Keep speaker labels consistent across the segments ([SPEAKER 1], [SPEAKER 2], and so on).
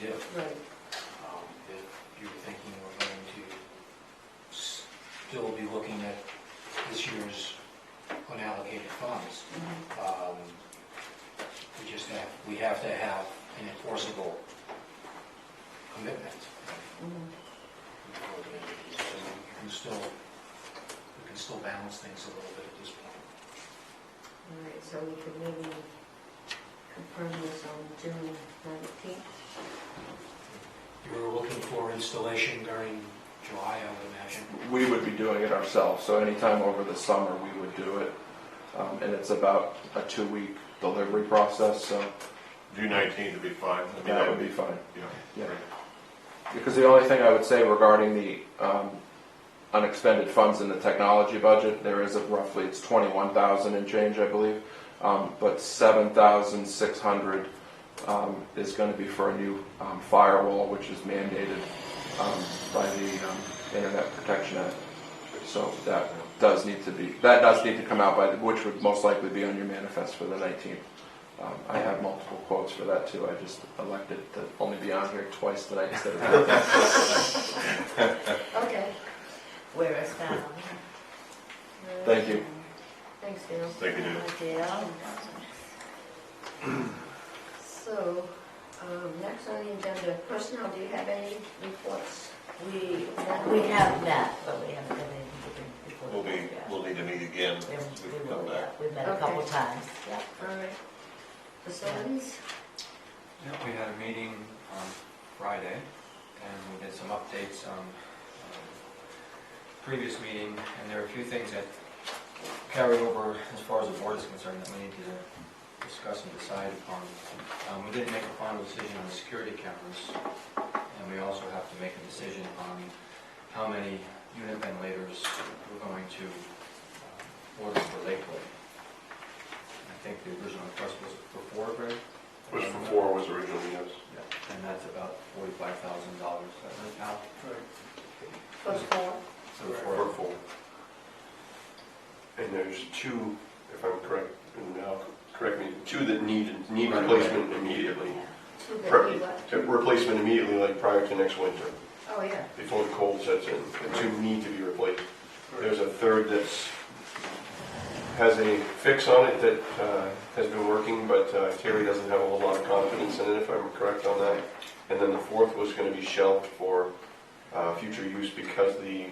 [SPEAKER 1] do.
[SPEAKER 2] Right,
[SPEAKER 1] Um, If you're thinking we're going to still be looking at this year's unallocated funds,
[SPEAKER 2] mm-hmm,
[SPEAKER 1] um, we just have, we have to have an enforceable commitment
[SPEAKER 2] mm-hmm.
[SPEAKER 1] before the end of the year. So we can still, we can still balance things a little bit at this point.
[SPEAKER 2] all right, so we could maybe confirm this on June nineteenth.
[SPEAKER 1] You were looking for installation during July, I would imagine.
[SPEAKER 3] We would be doing it ourselves, so anytime over the summer, we would do it. Um, And it's about a two-week delivery process, so
[SPEAKER 4] June nineteenth would be fine. I mean,
[SPEAKER 3] that would be fine.
[SPEAKER 4] yeah,
[SPEAKER 3] Yeah.
[SPEAKER 4] great.
[SPEAKER 3] Because the only thing I would say regarding the um, unexpended funds in the technology budget, there is a roughly, it's 21,000 and change, I believe. Um, But 7,600 um, is going to be for a new um, firewall, which is mandated um, by the um, Internet Protection Act. So that does need to be, that does need to come out by, the- which would most likely be on your manifest for the 19th. Um, I have multiple quotes for that too. I just elected to only be on here twice tonight instead of.
[SPEAKER 2] Okay. Where is that?
[SPEAKER 3] Thank you.
[SPEAKER 2] Thanks, Dale.
[SPEAKER 4] Thank you, Dale.
[SPEAKER 2] Dale. So, um, next on the agenda, personnel, do you have any reports?
[SPEAKER 5] We, we have met, but we haven't done anything before.
[SPEAKER 4] We'll be,
[SPEAKER 5] Yeah.
[SPEAKER 4] we'll need to meet again.
[SPEAKER 5] We haven't-
[SPEAKER 4] We
[SPEAKER 5] we
[SPEAKER 4] can
[SPEAKER 5] will,
[SPEAKER 4] come
[SPEAKER 5] yeah.
[SPEAKER 4] back.
[SPEAKER 5] We've met a couple
[SPEAKER 2] Okay.
[SPEAKER 5] times, yeah.
[SPEAKER 2] All right. Facilities?
[SPEAKER 6] Yeah, we had a meeting on Friday, and we did some updates on um, previous meeting, and there are a few things that carried over as far as the board is concerned that we need to discuss and decide upon. Um, We did make a final decision on the security cameras, and we also have to make a decision on how many unit ventilators we're going to um, order for Lakewood. I think the original request was for four, Greg? Um,
[SPEAKER 4] Was for four was originally, yes.
[SPEAKER 6] Yeah, And that's about forty-five thousand dollars, isn't it, Al?
[SPEAKER 2] For four?
[SPEAKER 6] So
[SPEAKER 4] For
[SPEAKER 6] for,
[SPEAKER 4] four. And there's two, if I'm correct, and now, correct me, two that need, need
[SPEAKER 6] Right.
[SPEAKER 4] replacement immediately.
[SPEAKER 2] Two that
[SPEAKER 4] Right.
[SPEAKER 2] we left?
[SPEAKER 4] Uh, Replacement immediately, like prior to next winter,
[SPEAKER 2] Oh, yeah.
[SPEAKER 4] before the cold sets in. The two need to be replaced. There's a third that's, has a fix on it that uh, has been working, but uh, Terry doesn't have a whole lot of confidence in it, if I'm correct on that. And then the fourth was gonna be shelved for uh, future use because the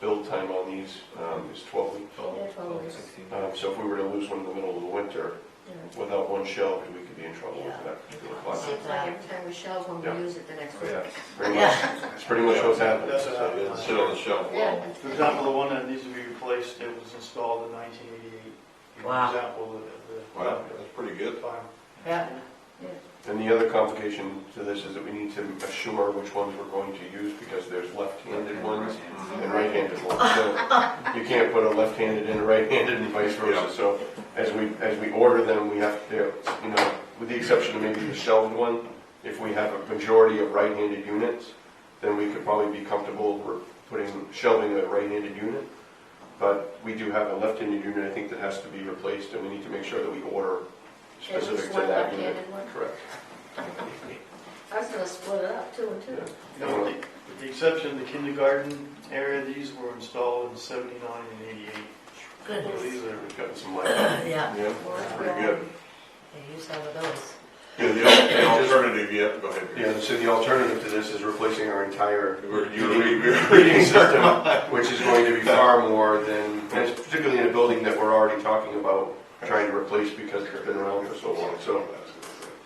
[SPEAKER 4] build time on these um, is 12 weeks.
[SPEAKER 2] They're twelve
[SPEAKER 6] twelve
[SPEAKER 2] weeks.
[SPEAKER 6] sixteen.
[SPEAKER 4] Um, So if we were to lose one in the middle of the winter,
[SPEAKER 2] Yeah.
[SPEAKER 4] without one shelved, we could be in trouble with that particular
[SPEAKER 2] It
[SPEAKER 4] class.
[SPEAKER 2] seems like every time we shelve one,
[SPEAKER 4] Yeah. Oh,
[SPEAKER 2] we use it the next week.
[SPEAKER 6] Yeah.
[SPEAKER 4] Pretty much, that's pretty much what's happened.
[SPEAKER 7] That's
[SPEAKER 4] So
[SPEAKER 7] what
[SPEAKER 4] they
[SPEAKER 7] happened.
[SPEAKER 4] Sit on the shelf.
[SPEAKER 2] Yeah.
[SPEAKER 7] For example, the one that needs to be replaced, it was installed in 1988.
[SPEAKER 5] Wow.
[SPEAKER 7] Example of
[SPEAKER 4] Wow, that's pretty good.
[SPEAKER 7] the time.
[SPEAKER 5] Yeah.
[SPEAKER 4] And the other complication to this is that we need to assure which ones we're going to use because there's left-handed ones and right-handed ones. So you can't put a left-handed and a right-handed and vice versa. So as we, as we order them, we have to, you know, with the exception of maybe the shelved one, if we have a majority of right-handed units, then we could probably be comfortable we're putting, shelving a right-handed unit. But we do have a left-handed unit, I think, that has to be replaced and we need to make sure that we order
[SPEAKER 2] At least
[SPEAKER 4] specific to
[SPEAKER 2] one
[SPEAKER 4] that unit.
[SPEAKER 2] left-handed one?
[SPEAKER 4] Correct.
[SPEAKER 2] I was gonna split it up, two and two.
[SPEAKER 4] Yeah.
[SPEAKER 7] You know, with the- With the exception of the kindergarten area, these were installed in 79 and 88.
[SPEAKER 4] Well,
[SPEAKER 5] Goodness,
[SPEAKER 4] These are, we've gotten some light. Yeah,
[SPEAKER 5] yeah,
[SPEAKER 4] that's pretty good.
[SPEAKER 5] they use some of those.
[SPEAKER 4] Yeah, the al- the alternative, yeah, go ahead. Yeah, so the alternative to this is replacing our entire heating heating system, which is going to be far more than, and it's particularly in a building that we're already talking about trying to replace because it's been around for so long, so.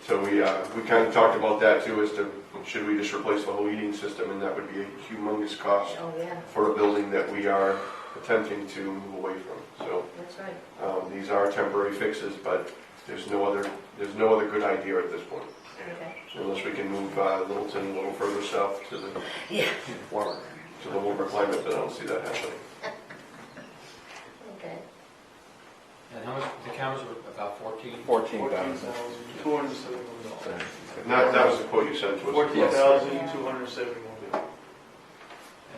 [SPEAKER 4] So we, uh, we kind of talked about that too, as to, should we just replace the whole heating system, and that would be a humongous cost
[SPEAKER 2] Oh, yeah,
[SPEAKER 4] for a building that we are attempting to move away from, so.
[SPEAKER 2] that's right.
[SPEAKER 4] Um, These are temporary fixes, but there's no other, there's no other good idea at this point,
[SPEAKER 2] Okay.
[SPEAKER 4] unless we can move uh, Littleton a little further south to the
[SPEAKER 5] Yeah.
[SPEAKER 4] warmer, to the warmer climate, but I don't see that happening.
[SPEAKER 2] Okay.
[SPEAKER 6] And how much, the cameras were about fourteen?
[SPEAKER 3] 14,000.
[SPEAKER 7] 14,271 dollars.
[SPEAKER 4] And That, that was the quote you sent to us.
[SPEAKER 7] 14,271.
[SPEAKER 6] And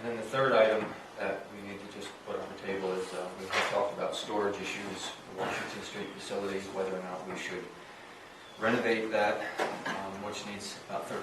[SPEAKER 6] then the third item that we need to just put on the table is, uh, we have talked about storage issues, in Washington Street facilities, whether or not we should renovate that, um, which needs about thirteen